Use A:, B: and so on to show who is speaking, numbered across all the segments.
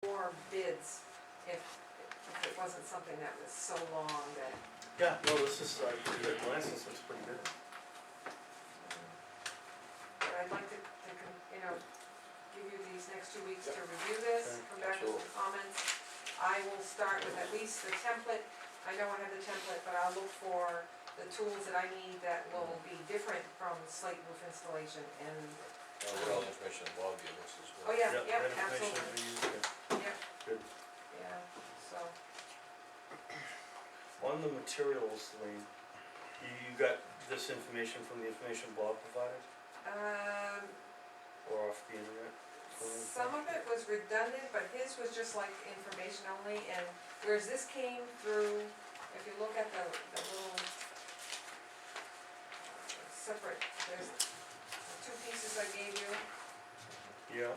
A: from bids if, if it wasn't something that was so long that.
B: Yeah, no, this is, uh, you did a glance, this looks pretty good.
A: But I'd like to, to, con- you know, give you these next two weeks to review this,
B: Okay.
A: come back with some comments. I will start with at least the template, I know I have the template, but I'll look for the tools that I need that will be different from slate roof installation and,
C: Now, what all the information Bob gave us is
A: oh
C: good.
A: yeah, yeah,
B: right information
A: absolutely,
B: for you, yeah.
A: yeah, so.
B: On the materials, Lean, you, you got this information from the information Bob provided,
A: Um,
B: or off the internet?
A: Some of it was redundant, but his was just like information only, and whereas this came through, if you look at the, the little uh, separate, there's two pieces I gave you,
B: Yeah,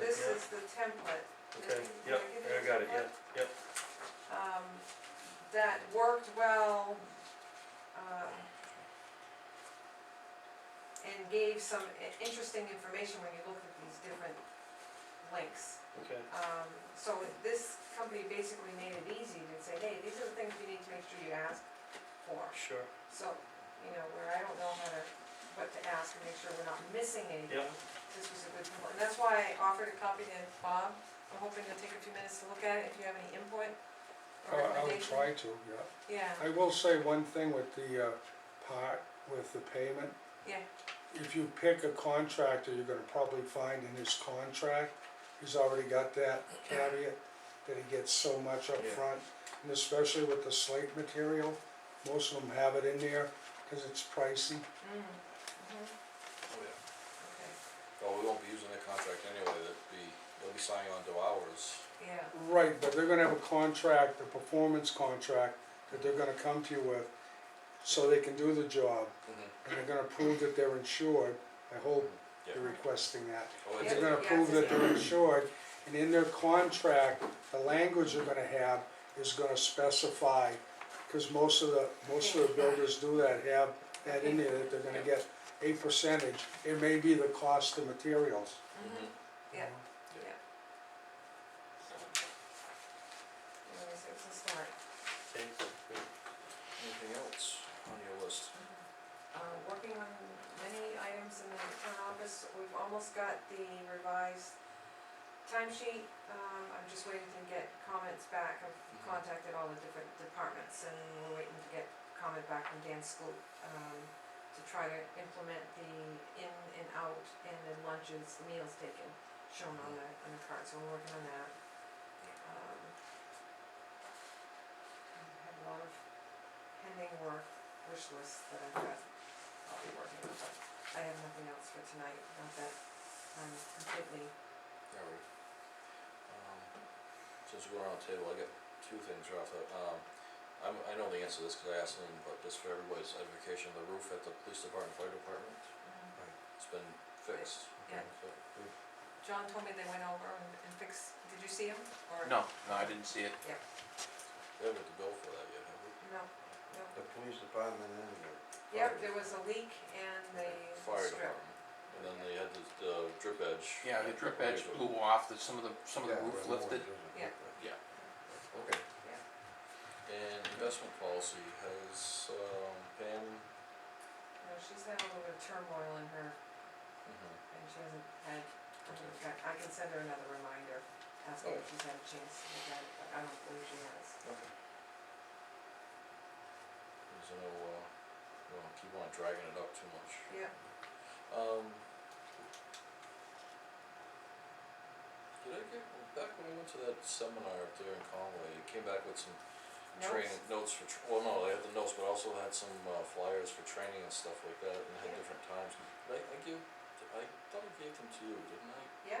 A: this
B: Yeah.
A: is the template. Did I-
B: okay,
A: did
B: yep,
A: give you
B: I
A: the
B: got it,
A: template?
B: yeah, yep,
A: um, that worked well, um, and gave some i- interesting information when you look at these different links.
B: okay,
A: Um, so this company basically made it easy to say, hey, these are the things you need to make sure you ask for.
B: sure,
A: So, you know, where I don't know how to, what to ask and make sure we're not missing anything.
B: Yeah.
A: This was a good report, and that's why I offered a copy to Bob, I'm hoping you'll take a few minutes to look at it, if you have any input or
D: I Oh, I would
A: recommendation.
D: try to, yeah.
A: Yeah,
D: I will say one thing with the uh, part, with the payment.
A: Yeah.
D: If you pick a contractor, you're gonna probably find in his contract, he's already got that caveat, that he gets so much up
B: Yeah.
D: front, And especially with the slate material, most of them have it in there, cause it's pricey.
A: mm, mhm,
C: Oh, yeah.
A: okay,
C: Well, we won't be using the contract anyway, that'd be, they'll be signing on to ours.
A: yeah,
D: Right, but they're gonna have a contract, a performance contract, that they're gonna come to you with, so they can do the job. and they're gonna prove that they're insured, I hope
C: Yeah.
D: you're requesting that.
C: Oh,
A: Yeah.
C: it's,
D: They're gonna prove that they're insured, and in their contract, the language they're gonna have is gonna specify, cause most of the, most of the builders do that, have that in there, that they're gonna get a percentage, it may be the cost of materials.
C: mm-hmm.
A: mhm,
D: you
A: Yeah.
D: know?
A: so. Anyways, it was a start.
B: okay, good.
C: anything else on your list?
A: Uh, working on many items in the town office, we've almost got the revised timesheet, um, I'm just waiting to get comments back, I've
C: Mhm.
A: contacted all the different departments, and we're waiting to get comment back from Dan Scoop, um, to try to implement the in and out, and then lunches, meals taken, shown on the, on the card, so we're working on that. Um, I have a lot of pending work, wish lists that I've got, I'll be working on, but I have nothing else for tonight, not that I'm completely,
C: Yeah, right. Um, Since we're on the table, I got two things right off the, um, I'm, I know the answer to this, cause I asked them, but just for everybody's education, the roof at the police department, fire department,
A: um,
C: it's been fixed.
A: Yeah.
C: So,
A: John told me they went over and and fixed, did you see him, or?
E: No, no, I didn't see it.
C: We haven't got the bill for that yet, have we?
A: No, no,
F: The police department and the.
A: yeah, there was a leak and the
C: Fire
A: strip,
C: department, and then they had the, the drip edge.
E: Yeah, the drip edge
C: Right,
E: blew
C: but-
E: off, the, some of the, some of the
F: Yeah,
E: roof
F: well, no one
E: lifted.
F: doesn't
A: Yeah.
F: look like-
E: Yeah.
C: Okay. And investment policy has, um, Pam,
A: you know, she's had a little bit of turmoil in her,
C: mm-hmm,
A: and she hasn't had, I
C: Okay.
A: I can send her another reminder, asking if
C: Okay.
A: she's had a chance to look at it, but I don't believe she has.
C: Okay. There's no, uh, we don't keep on dragging it up too much.
A: Yeah,
C: Um. Did I get, back when I went to that seminar up there in Conway, it came back with some training, notes for, tr- well, no, they had the notes, but also had some uh, flyers for training and stuff like that, and had
A: Yeah.
C: different times. Did I, I give, did I thought I gave them to you, didn't I?
A: yeah,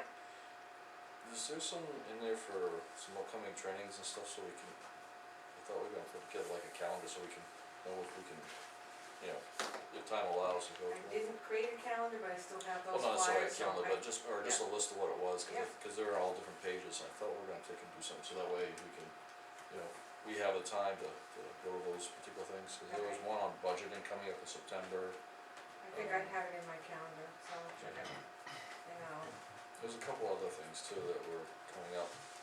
C: Is there some in there for some upcoming trainings and stuff so we can, I thought we were gonna put together like a calendar so we can know if we can, you know, if time allows to go
A: I
C: through.
A: didn't create a calendar, but I still have
C: Well,
A: those
C: not necessarily a
A: flyers, so
C: calendar,
A: I,
C: but just, or just a list of what it was, cause,
A: Yeah.
C: it- cause they're all different pages, and I thought we were gonna take and do something, so that way we can, you know, we have the time to, to go over those particular things, cause there was
A: Okay.
C: one on budgeting coming up in September,
A: I think I have it in my calendar, so I'll check it out. And I'll,
C: there's a couple other things too that were coming up.